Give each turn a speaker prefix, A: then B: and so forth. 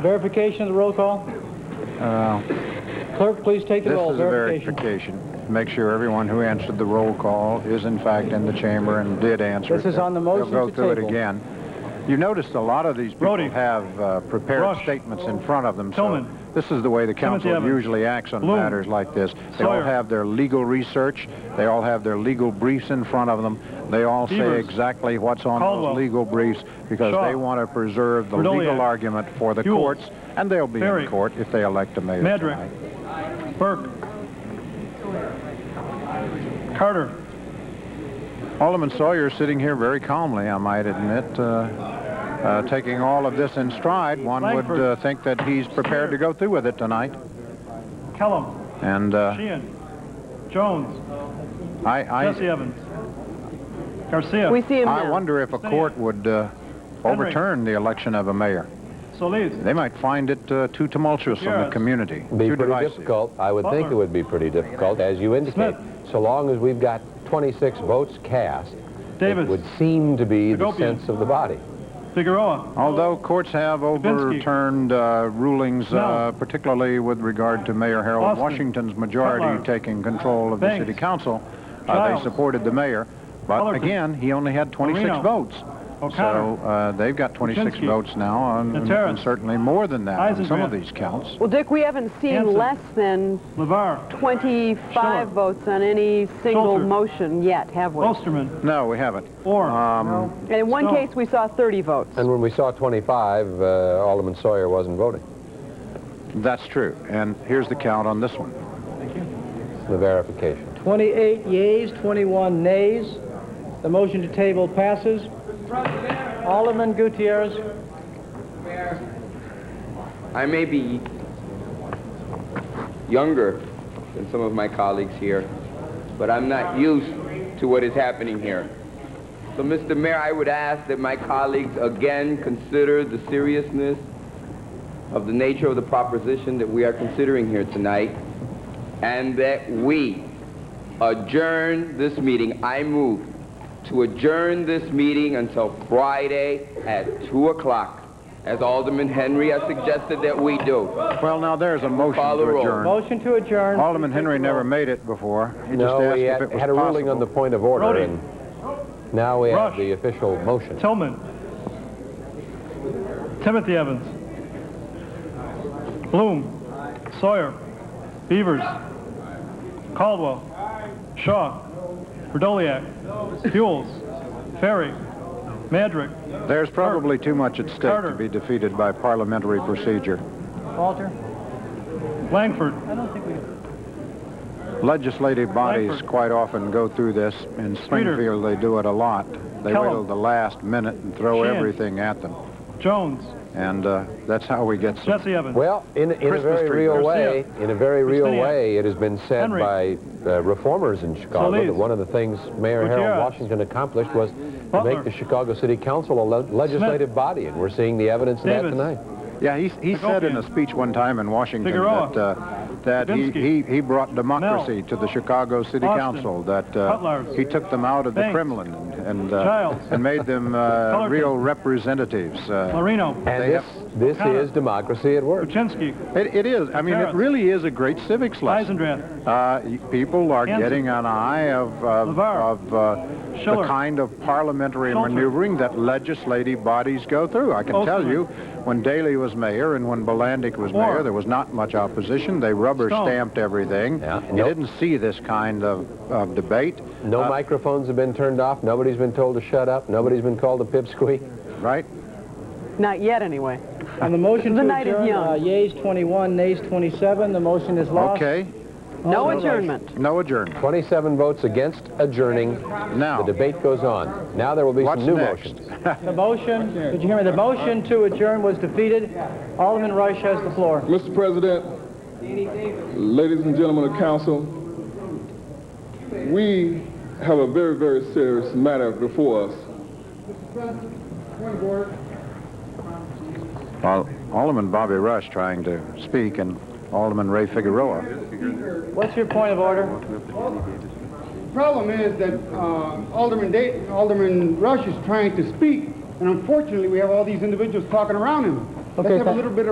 A: Verification of the roll call? Clerk, please take the
B: Uh, This
A: roll.
B: is a verification. Make sure everyone who answered the roll call is in fact in the chamber and did answer.
A: This
B: it.
A: is on the motion
B: They'll go
A: to
B: through it
A: table.
B: again. You noticed a lot of these people
C: Brody.
B: have uh, prepared
C: Rush.
B: statements in front of them.
C: Tillman.
B: So this is the way the council
C: Evans.
B: usually acts on
C: Bloom.
B: matters like this. They all
C: Sawyer.
B: have their legal research. They all have their legal briefs in front of them. They all say
C: Evers.
B: exactly what's on
C: Caldwell.
B: those legal briefs because
C: Shaw.
B: they want to preserve the
C: Verdoliak.
B: legal argument for the
C: Huel.
B: courts, and they'll be
C: Perry.
B: in court if they elect a mayor
C: Madrick.
B: tonight.
C: Burke. Carter.
B: Alderman Sawyer sitting here very calmly, I might admit, uh, uh, taking all of this in stride. One would
C: Langford.
B: uh, think that he's prepared to go through with it tonight.
C: Kellum.
B: And uh,
C: Sheehan. Jones.
B: I,
C: Jesse
B: I,
C: Evans. Garcia.
D: We see him
B: I
D: now.
B: wonder if a court would uh, overturn the election of a mayor.
C: Solis.
B: They might find it uh, too tumultuous in the
C: Yes.
B: community,
E: Be
B: too
E: pretty
B: divisive.
E: difficult. I would think it
C: Butler.
E: would be pretty difficult, as you indicate. So long as we've got 26 votes cast,
C: Davis.
E: it would seem to be the
C: Hagopian.
E: sense of the body.
C: Figueroa.
B: Although courts have overturned uh, rulings, uh,
C: No.
B: particularly with regard to Mayor Harold
C: Austin.
B: Washington, Washington's majority
C: Cutler.
B: taking control of
C: Banks.
B: the city council, uh, they
C: Childs.
B: supported the mayor. But
C: Fullerton.
B: again, he only had 26
C: Marino.
B: votes.
C: O'Connor.
B: So uh, they've got 26
C: Kuczynski.
B: votes now, and,
C: Natera.
B: and certainly more than that on some of
C: Eisengraf.
B: these counts.
D: Well, Dick, we haven't seen
C: Hanson.
D: less than
C: Lavar.
D: 25
C: Schiller.
D: votes on any single
C: Schulter.
D: motion yet, have we?
C: Osterman.
B: No, we haven't. Um,
C: Orr.
D: And in one
C: No.
D: case, we saw 30 votes.
E: And when we saw 25, uh, Alderman Sawyer wasn't voting.
B: That's true. And here's the count on this one.
E: The verification.
A: 28 yeas, 21 nays. The motion to table passes. Alderman Gutierrez,
F: I may be younger than some of my colleagues here, but I'm not used to what is happening here. So, Mr. Mayor, I would ask that my colleagues again consider the seriousness of the nature of the proposition that we are considering here tonight, and that we adjourn this meeting. I move to adjourn this meeting until Friday at 2 o'clock, as Alderman Henry has suggested that we do.
B: Well, now there's a motion
F: Call the
B: to
F: roll.
B: adjourn.
A: motion to adjourn.
B: Alderman Henry never made it before. He just
E: no,
B: asked
E: we
B: if
E: had,
B: it was
E: had a ruling on
B: possible.
E: the point of order,
C: Brody.
E: and now we
C: Rush.
E: have the official motion.
C: Tillman. Timothy Evans. Bloom. Sawyer. Beavers. Caldwell. Shaw. Verdoliak. Fuels. Ferry. Madrick.
B: There's probably too much at stake
C: Carter.
B: to be defeated by parliamentary procedure.
A: Walter,
C: Langford.
A: I don't think we
B: Legislative bodies
C: Langford.
B: quite often go through this. In Springfield, they do it a lot. They
C: Kellogg.
B: wait till the last minute and throw
C: Sheehan.
B: everything at them.
C: Jones.
B: And uh, that's how we get some.
C: Jesse Evans.
E: Well, in, in a
B: Christmas
E: very
B: tree.
E: real
C: Garcia.
E: way, in a very real
C: Christina.
E: way, it has been said
C: Henry.
E: by uh, reformers in Chicago
C: Solis.
E: that one of the things Mayor
C: Gutierrez.
E: Harold Washington accomplished was to
C: Butler.
E: make the Chicago City Council a le- legislative body, and we're seeing the evidence of that
C: Davis.
E: tonight.
B: Yeah, he, he said in a
C: Hagopian.
B: speech one time in Washington
C: Figueroa.
B: that, uh, that he, he,
C: Dubinsky.
B: he brought democracy to the Chicago City
C: Austin.
B: Council, that uh,
C: Cutlars.
B: he took them out of the
C: Banks.
B: Kremlin and, and, uh,
C: Childs.
B: and made them uh,
C: Fullerton.
B: real representatives. Uh,
C: Marino.
E: And
B: They
E: this, this
C: O'Connor.
E: is democracy at work.
C: Kuczynski.
B: it, it is. I mean, it
C: Harris.
B: really is a great civics lesson.
C: Eisendrath.
B: Uh, y- people are
C: Hanson.
B: getting an eye of, of,
C: LeVar.
B: of uh, the
C: Schiller.
B: kind of parliamentary
C: Schulter.
B: maneuvering that legislative bodies go through. I can tell
C: Osterman.
B: you, when Daley was mayor and when Bolandic was
C: Orr.
B: mayor, there was not much opposition. They rubber
C: Stone.
B: stamped everything.
E: Yeah,
B: You
E: nope.
B: didn't see this kind of, of debate,
E: No microphones have been turned off. Nobody's been told to shut up. Nobody's been called a pipsqueak.
B: right?
D: Not yet, anyway.
A: On the motion
D: The
A: to
D: night is
A: adjourn,
D: young.
A: uh, yeas 21, nays 27. The motion is lost.
B: Okay,
D: No
A: Alderman-
D: adjournment.
B: no adjournment.
E: 27 votes against adjourning.
B: Now,
E: The debate goes on. Now there will be
B: what's
E: some new
B: next?
E: motions.
A: The motion, did you hear me? The motion to adjourn was defeated. Alderman Rush has the floor.
G: Mr. President, ladies and gentlemen of council, we have a very, very serious matter before us.
B: Well, Alderman Bobby Rush trying to speak and Alderman Ray Figueroa.
A: What's your point of order?
H: problem is that uh, Alderman, Day- Alderman Rush is trying to speak, and unfortunately, we have all these individuals talking around him. Let's have a little bit